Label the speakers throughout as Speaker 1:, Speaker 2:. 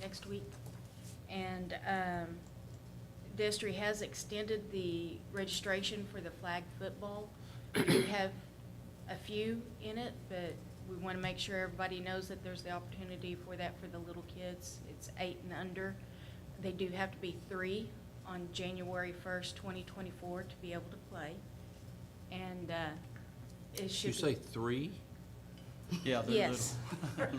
Speaker 1: next week. And um, Destry has extended the registration for the flag football. We do have a few in it, but we want to make sure everybody knows that there's the opportunity for that for the little kids. It's eight and under. They do have to be three on January 1st, 2024 to be able to play. And uh, it should
Speaker 2: You
Speaker 1: be...
Speaker 2: say three?
Speaker 3: Yeah, they're
Speaker 1: Yes.
Speaker 3: little,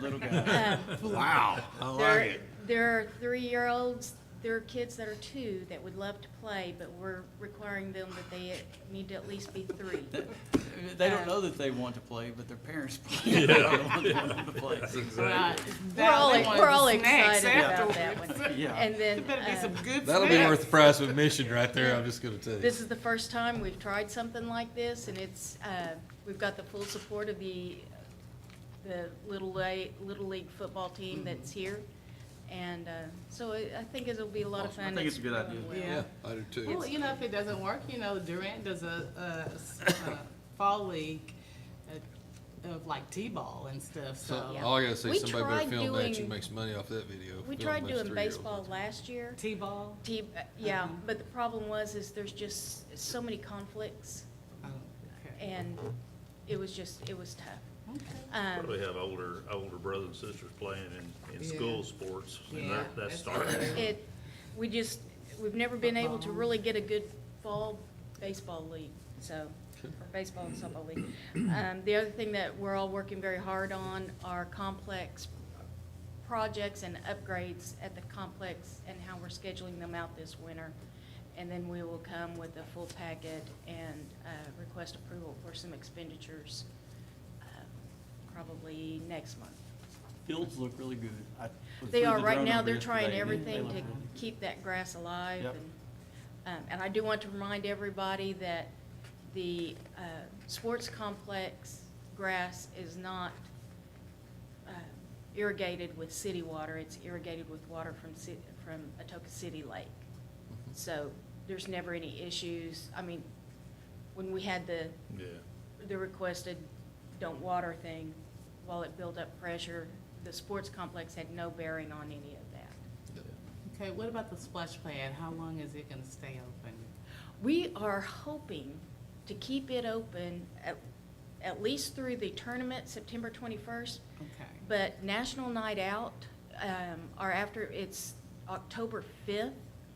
Speaker 3: little guy.
Speaker 1: Um,
Speaker 2: Wow, I
Speaker 1: There, there are three-year-olds, there are kids that are two that would love to play, but we're requiring them that they need to at least be three.
Speaker 3: They don't know that they want to play, but their parents play. They want them to play.
Speaker 4: Right.
Speaker 1: We're all,
Speaker 4: They wanted
Speaker 1: we're all
Speaker 4: the snacks
Speaker 1: excited
Speaker 4: after.
Speaker 1: about that one.
Speaker 3: Yeah.
Speaker 1: And then,
Speaker 4: There better be some
Speaker 1: um,
Speaker 4: good
Speaker 5: That'll be worth the
Speaker 4: snacks.
Speaker 5: price of admission right there, I'm just gonna tell you.
Speaker 1: this is the first time we've tried something like this, and it's, uh, we've got the full support of the, the Little La, Little League football
Speaker 4: Mm-hmm.
Speaker 1: team that's here. And, uh, so I, I think it'll be a lot of
Speaker 3: Awesome. I
Speaker 1: fun.
Speaker 3: think it's a good
Speaker 1: going
Speaker 3: idea.
Speaker 1: well.
Speaker 4: Yeah.
Speaker 5: I do too.
Speaker 4: Well, you know, if it doesn't work, you know, Durant does a, a s- a fall league uh, of like T-ball and stuff,
Speaker 5: So,
Speaker 4: so.
Speaker 1: Yeah.
Speaker 5: all I gotta say,
Speaker 1: We
Speaker 5: somebody better
Speaker 1: tried
Speaker 5: film that, you
Speaker 1: doing-
Speaker 5: can make some money off that video.
Speaker 1: We
Speaker 5: Film
Speaker 1: tried
Speaker 5: those
Speaker 1: doing
Speaker 5: three-year-olds.
Speaker 1: baseball last year.
Speaker 4: T-ball,
Speaker 1: T, uh, yeah,
Speaker 4: Mhm.
Speaker 1: but the problem was is there's just so many conflicts
Speaker 4: oh, okay.
Speaker 1: and it was just, it was tough.
Speaker 4: Okay.
Speaker 1: Um,
Speaker 6: Probably have older, older brothers and sisters playing in, in
Speaker 4: Yeah.
Speaker 6: school sports, and
Speaker 4: Yeah,
Speaker 6: that,
Speaker 4: that's
Speaker 6: that's starting.
Speaker 1: it, we just, we've never been able to really get a good fall baseball league, so, or baseball and softball league. Um, the other thing that we're all working very hard on are complex projects and upgrades at the complex and how we're scheduling them out this winter. And then we will come with a full packet and, uh, request approval for some expenditures, uh, probably next month.
Speaker 3: Fields look really good. I was
Speaker 1: They
Speaker 3: with
Speaker 1: are,
Speaker 3: the
Speaker 1: right
Speaker 3: drone
Speaker 1: now,
Speaker 3: over
Speaker 1: they're
Speaker 3: yesterday,
Speaker 1: trying
Speaker 3: and they- they
Speaker 1: everything
Speaker 3: look
Speaker 1: to
Speaker 3: really good.
Speaker 1: keep that grass alive.
Speaker 3: Yep.
Speaker 1: and, um, And I do want to remind everybody that the uh, sports complex grass is not uh, irrigated with city water. It's irrigated with water from, ci- from Atoka City Lake. So there's never any issues. I mean, when we had the
Speaker 6: Yeah,
Speaker 1: the requested don't water thing, while it built up pressure, the sports complex had no bearing on any of that.
Speaker 4: Okay, what about the splash pad? How long is it gonna stay open?
Speaker 1: We are hoping to keep it open at, at least through the tournament, September twenty-first,
Speaker 4: Okay,
Speaker 1: but National Night Out, um, are after, it's October fifth,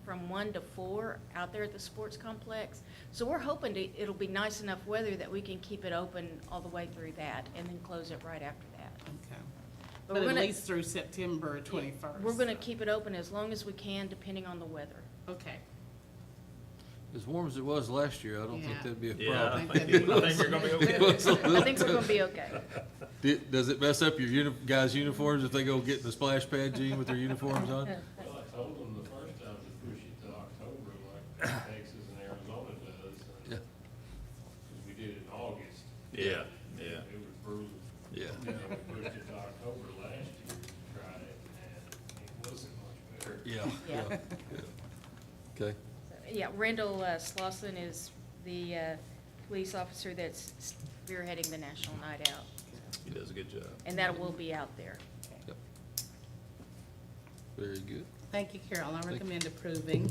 Speaker 1: from one to four, out there at the sports complex. So we're hoping to, it'll be nice enough weather that we can keep it open all the way through that, and then close it right after that.
Speaker 4: okay.
Speaker 1: But
Speaker 4: But
Speaker 1: we're
Speaker 4: at
Speaker 1: gonna-
Speaker 4: least through September twenty-first.
Speaker 1: We're gonna keep it open as long as we can, depending on the weather.
Speaker 4: Okay.
Speaker 5: As warm as it was last year, I don't think
Speaker 4: Yeah.
Speaker 5: that'd be a
Speaker 6: yeah,
Speaker 5: problem.
Speaker 6: I think, I think you're gonna be
Speaker 5: It
Speaker 6: okay.
Speaker 5: was a
Speaker 1: I think
Speaker 5: little-
Speaker 1: we're gonna be okay.
Speaker 5: Di- Does it mess up your uni, guys' uniforms if they go get in the splash pad, Gene, with their uniforms on?
Speaker 7: Well, I told them the first time to push it to October like Texas and Arizona does. and-
Speaker 5: Yeah.
Speaker 7: 'cause we did it in August.
Speaker 6: Yeah, yeah.
Speaker 7: It was brutal.
Speaker 5: Yeah.
Speaker 7: You know, we pushed it to October last year to try it and it wasn't much better.
Speaker 5: Yeah,
Speaker 1: Yeah.
Speaker 5: yeah. Okay,
Speaker 1: So, Yeah, Randall uh, Slosson is the uh, police officer that's spearheading the National Night Out,
Speaker 6: He does a good job.
Speaker 1: and that will be out there.
Speaker 5: yep. Very good.
Speaker 4: Thank you, Carol. I
Speaker 5: you.
Speaker 4: recommend approving.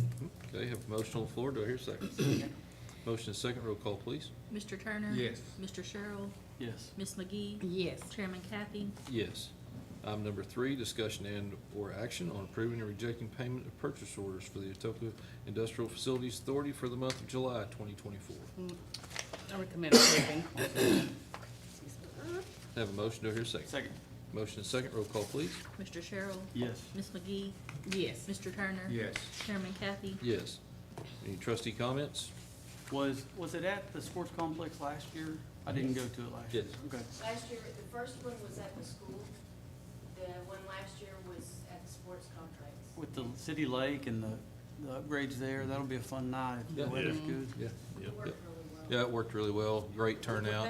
Speaker 5: Okay, have a motion on the floor. Do I hear a second? Motion is second. Roll call, please.
Speaker 8: Mr. Turner?
Speaker 5: Yes.
Speaker 8: Mr. Sherrill?
Speaker 3: Yes.
Speaker 8: Ms. McGee?
Speaker 4: Yes.
Speaker 8: Chairman Kathy?
Speaker 5: Yes. Item number three, discussion and/or action on approving and rejecting payment of purchase orders for the Etoka Industrial Facilities Authority for the month of July 2024.
Speaker 4: I recommend approving.
Speaker 5: Have a motion, do I hear a second?
Speaker 3: Second.
Speaker 5: Motion is second, roll call, please.
Speaker 8: Mr. Sherrill?
Speaker 3: Yes.
Speaker 8: Ms. McGee?
Speaker 4: Yes.
Speaker 8: Mr. Turner? Chairman Kathy?
Speaker 5: Yes. Any trustee comments?
Speaker 3: Was, was it at the sports complex last year? I didn't go to it last year.
Speaker 5: Yes.
Speaker 3: Okay.
Speaker 1: Last year, the first one was at the school. The one last year was at the sports complex.
Speaker 3: With the city lake and the, the upgrades there, that'll be a fun night if
Speaker 5: Yeah.
Speaker 3: the weather's
Speaker 6: Yeah.
Speaker 3: good.
Speaker 5: Yeah.
Speaker 6: Yep.
Speaker 1: Worked really well.
Speaker 5: Yeah, it worked really well, great turnout.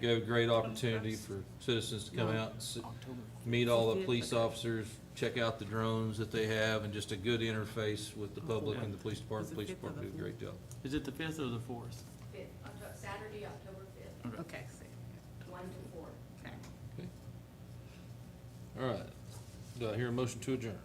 Speaker 5: Gave a great opportunity for citizens to come out, and sit-
Speaker 3: October.
Speaker 5: meet all the police officers, check out the drones that they have, and just a good interface with the public and the police department. Police department did a great job.
Speaker 3: Is it the fifth or the fourth?
Speaker 1: Fifth, Octo- Saturday, October fifth,
Speaker 4: Okay, see.
Speaker 1: one to four.
Speaker 4: Okay.
Speaker 5: Okay. All right. Do I hear a motion to adjourn?